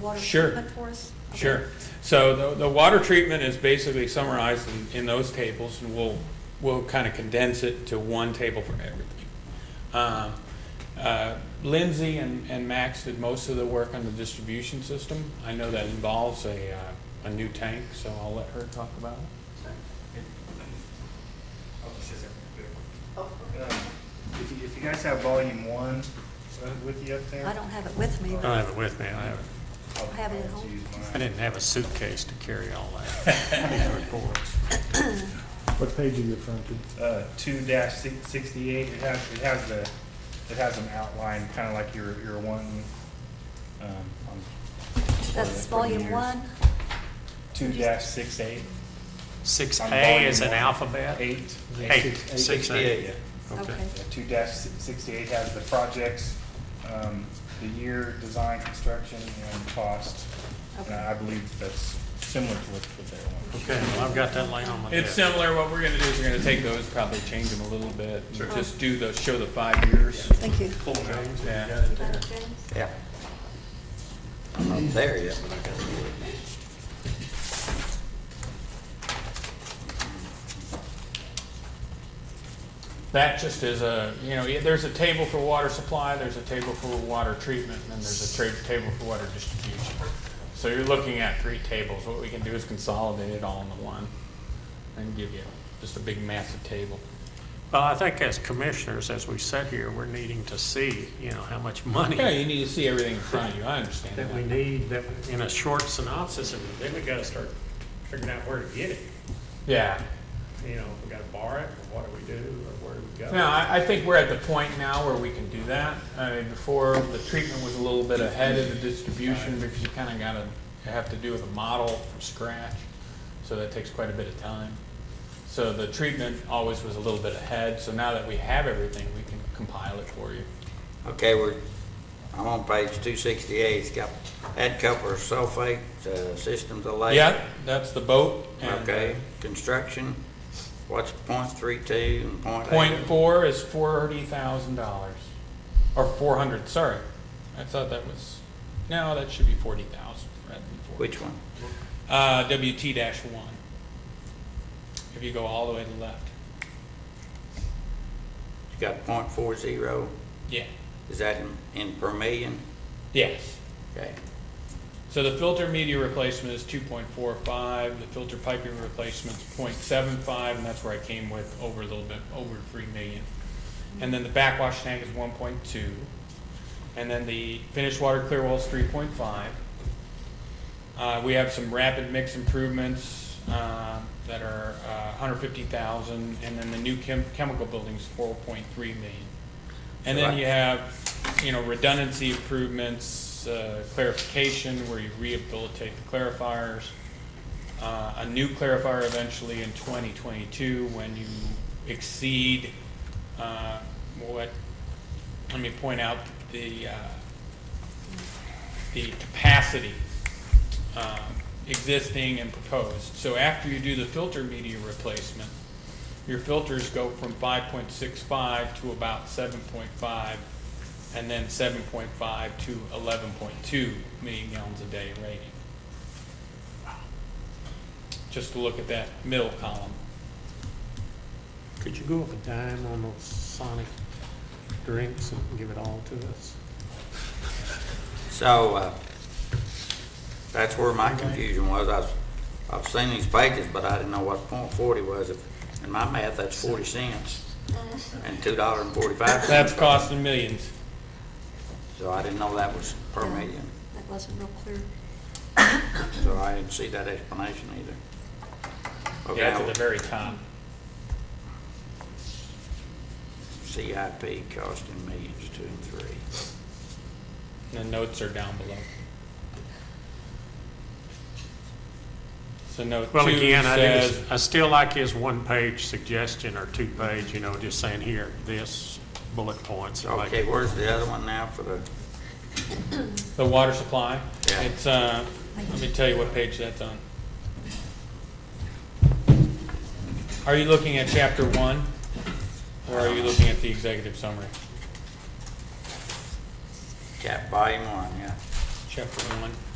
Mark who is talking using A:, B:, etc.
A: water
B: Sure.
A: treatment for us? Okay.
B: Sure. So the, the water treatment is basically summarized in, in those tables, and we'll, we'll kind of condense it to one table for everything. Um, uh, Lindsay and, and Max did most of the work on the distribution system. I know that involves a, uh, a new tank, so I'll let her talk about it.
C: If you, if you guys have volume one uh, with you up there?
A: I don't have it with me,
D: I
A: but
D: don't have it with me. I have,
C: I'll-
A: I have it at
C: I'll
A: home.
C: use mine.
D: I didn't have a suitcase to carry all that. These reports.
E: What page are you referring to?
C: Uh, two dash six- sixty-eight, it has, it has the, it has them outlined, kind of like you're, you're wanting. um, on-
A: that's
C: for the
A: volume
C: years.
A: one.
C: Two dash six eight,
D: Six
C: On
D: A is an
C: volume one.
D: alphabet?
C: eight.
D: Eight. Six A.
A: Okay.
C: Two dash sixty-eight has the projects, um, the year, design, construction, and cost. And
A: Okay.
C: I believe that's similar to what, what they want.
D: Okay, well, I've got that laying on my
B: It's
D: desk.
B: similar, what we're gonna do is we're gonna take those, probably change them a little bit, and just do those, show the five years.
A: Thank you.
D: Cool, James.
B: Yeah.
A: Madam James?
F: Yeah. I'm not there yet, but I got to do it.
B: That just is a, you know, there's a table for water supply, there's a table for water treatment, and then there's a tra- table for water distribution. So you're looking at three tables. What we can do is consolidate it all into one and give you just a big massive table.
D: Well, I think as commissioners, as we sit here, we're needing to see, you know, how much money
B: Yeah, you need to see everything in front of you. I understand
D: that we
B: that.
D: need, that, in a short synopsis, and then we gotta start figuring out where to get it.
B: Yeah.
D: You know, we gotta borrow it, or what do we do, or where do we go?
B: No, I, I think we're at the point now where we can do that. I mean, before, the treatment was a little bit ahead of the distribution because you kind of got to have to do with a model from scratch. So that takes quite a bit of time. So the treatment always was a little bit ahead. So now that we have everything, we can compile it for you.
F: Okay, we're, I'm on page two sixty-eight, it's got head coupler sulfate, uh, system delay.
B: Yeah, that's the boat. and,
F: Okay,
B: uh,
F: construction, what's point three two and point eight?
B: Point four is forty thousand dollars, or four hundred, sorry. I thought that was, no, that should be forty thousand rather than forty.
F: Which one?
B: Uh, WT dash one. If you go all the way to the left.
F: You got point four zero,
B: Yeah.
F: is that in, in per million?
B: Yes.
F: Okay,
B: So the filter media replacement is two point four five, the filter piping replacement's 0.75, and that's where I came with over a little bit, over three million. And then the backwash tank is one point two, and then the finished water clear wall's three point five. Uh, we have some rapid mix improvements, uh, that are, uh, hundred fifty thousand, and then the new chem- chemical building's four point three million. And then
F: Right.
B: you have, you know, redundancy improvements, uh, clarification, where you rehabilitate the clarifiers, uh, a new clarifier eventually in 2022 when you exceed uh, what, let me point out, the, uh, the capacity um, existing and proposed. So after you do the filter media replacement, your filters go from 5.65 to about 7.5, and then 7.5 to 11.2 million gallons a day rating. Just to look at that middle column.
D: Could you go up a dime on those Sonic drinks and give it all to us?
F: so, uh, that's where my confusion was, I've, I've seen these pages, but I didn't know what point forty was. If- In my math, that's forty cents and two dollars and forty-five cents.
B: That's costing millions.
F: So I didn't know that was per
A: Yeah.
F: million,
A: That wasn't real clear.
F: so I didn't see that explanation either. Okay,
B: Yeah, it's at the
F: now,
B: very top.
F: CIP costing millions, two and three.
B: The notes are down below. So note
D: Well,
B: two
D: again, I
B: says, uh,
D: do, I still like his one-page suggestion or two-page, you know, just saying here, this, bullet points. and like-
F: Okay, where's the other one now for the,
B: the water supply.
F: Yeah.
B: It's, uh, let me tell you what page that's on. Are you looking at chapter one? Or are you looking at the executive summary?
F: cap volume one, yeah?
B: Chapter one.